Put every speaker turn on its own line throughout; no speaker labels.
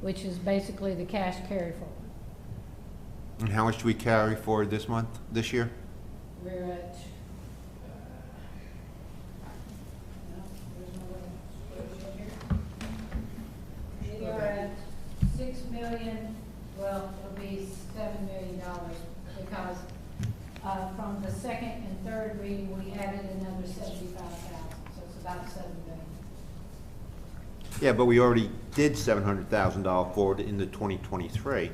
which is basically the cash carry forward.
And how much do we carry forward this month, this year?
We're at, uh, no, there's no way to put it in here. We are at six million, well, it'll be seven million dollars because, uh, from the second and third reading, we added another seventy-five thousand, so it's about seven million.
Yeah, but we already did seven hundred thousand dollar forward in the twenty twenty-three.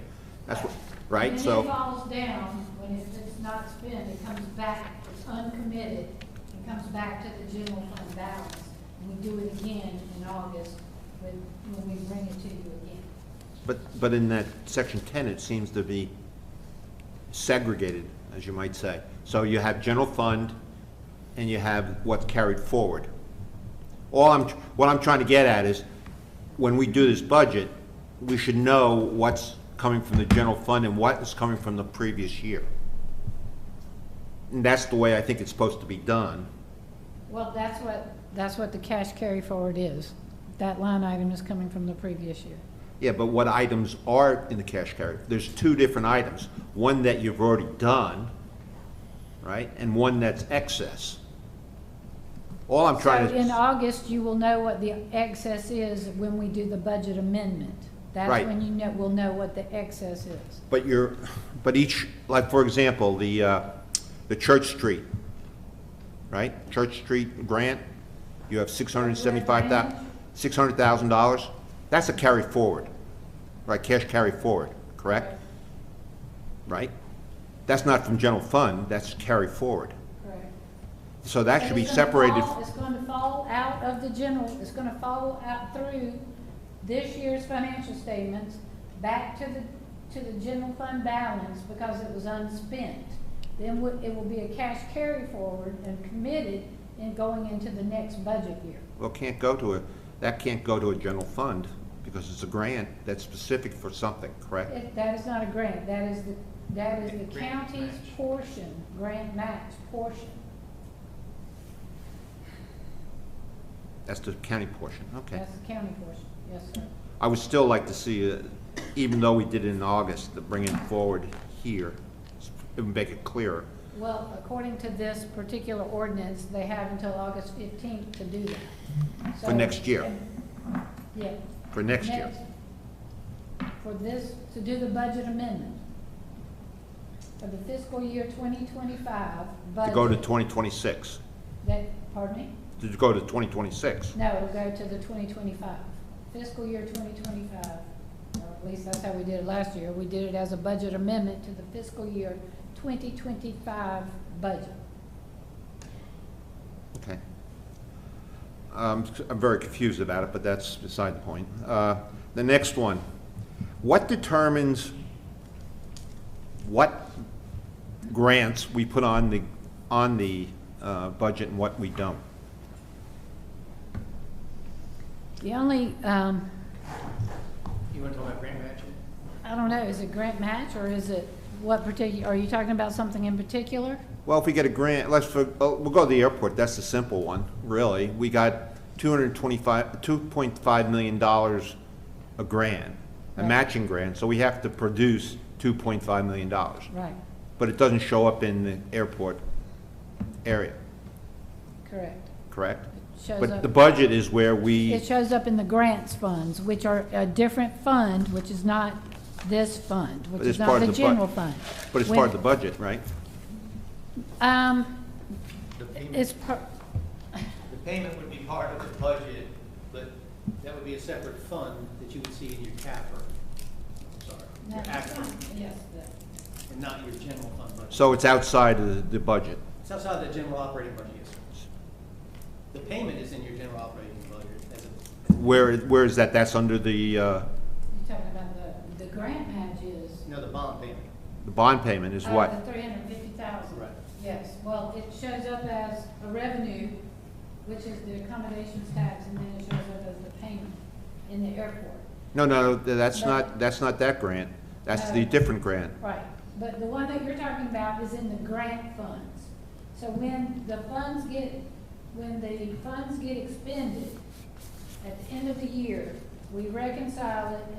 That's what, right,
And then it
so,
falls down, when it's, it's not spent, it comes back, it's uncommitted, it comes back to the general fund balance. And we do it again in August, when, when we bring it to you again.
but, but in that section ten, it seems to be segregated, as you might say. So you have general fund and you have what's carried forward. All I'm, what I'm trying to get at is, when we do this budget, we should know what's coming from the general fund and what is coming from the previous year. And that's the way I think it's supposed to be done.
Well, that's what, that's what the cash carry forward is. That line item is coming from the previous year.
Yeah, but what items are in the cash carry? There's two different items. One that you've already done, right, and one that's excess. All I'm trying
So in
to,
August, you will know what the excess is when we do the budget amendment. That's
Right.
when you know, will know what the excess is.
but you're, but each, like, for example, the, uh, the Church Street, right? Church Street grant, you have six hundred and seventy-five thou, six hundred thousand dollars. That's a carry forward, right, cash carry forward, correct? Right? That's not from general fund, that's carry forward.
Correct.
So that
And
should be
it's gonna
separated.
fall- It's gonna fall out of the general, it's gonna fall out through this year's financial statements, back to the, to the general fund balance because it was unspent. Then wo- it will be a cash carry forward and committed in going into the next budget year.
Well, can't go to a, that can't go to a general fund because it's a grant that's specific for something, correct?
It- That is not a grant, that is the, that is the
Grant
county's
match.
portion, grant match portion.
That's the county portion, okay.
That's the county portion, yes, sir.
I would still like to see, uh, even though we did it in August, to bring it forward here, s- and make it clearer.
Well, according to this particular ordinance, they have until August fifteenth to do that.
For
So-
next year.
Yeah.
For next year.
For this, to do the budget amendment. For the fiscal year twenty twenty-five
To
budget.
go to 2026,
That, pardon me?
to go to 2026.
No, it'll go to the twenty twenty-five, fiscal year twenty twenty-five. Or at least that's how we did it last year. We did it as a budget amendment to the fiscal year twenty twenty-five budget.
Okay. Um, I'm very confused about it, but that's beside the point. Uh, The next one, what determines what grants we put on the, on the uh, budget and what we don't?
The only, um,
You want to talk about grant matching?
I don't know, is it grant match or is it what particular, are you talking about something in particular?
Well, if we get a grant, let's, for- oh, we'll go to the airport, that's the simple one, really. We got 225, $2.5 million a grant, a
Right.
matching grant, so we have to produce $2.5 million.
Right,
But it doesn't show up in the airport area,
correct.
correct?
It Shows
But the
up,
budget is where
it
we,
shows up in the grants funds, which are a different fund, which is not this fund, which
But
is
it's part
not
of
the
the bu-
general fund.
but it's part of the budget, right?
the. Um,
The payment,
it's per,
the payment would be part of the budget, but that would be a separate fund that you would see in your CAFR. I'm sorry, your ACFR,
yes,
and not your general fund budget.
So it's outside of the- the budget.
It's outside the general operating budget, yes, sir. The payment is in your general operating budget as a,
Where, where is that? That's under the, uh,
you're talking about the, the grant match is.
you know, the bond payment.
the bond payment is
Uh,
what?
The three hundred and fifty thousand.
Right.
Yes, well, it shows up as a revenue, which is the accommodations tax, and then it shows up as the payment in the airport.
No, no, that's
No.
not, that's not that grant. That's the
No.
different grant.
Right, but the one that you're talking about is in the grant funds. So when the funds get, when the funds get expended at the end of the year, we reconcile it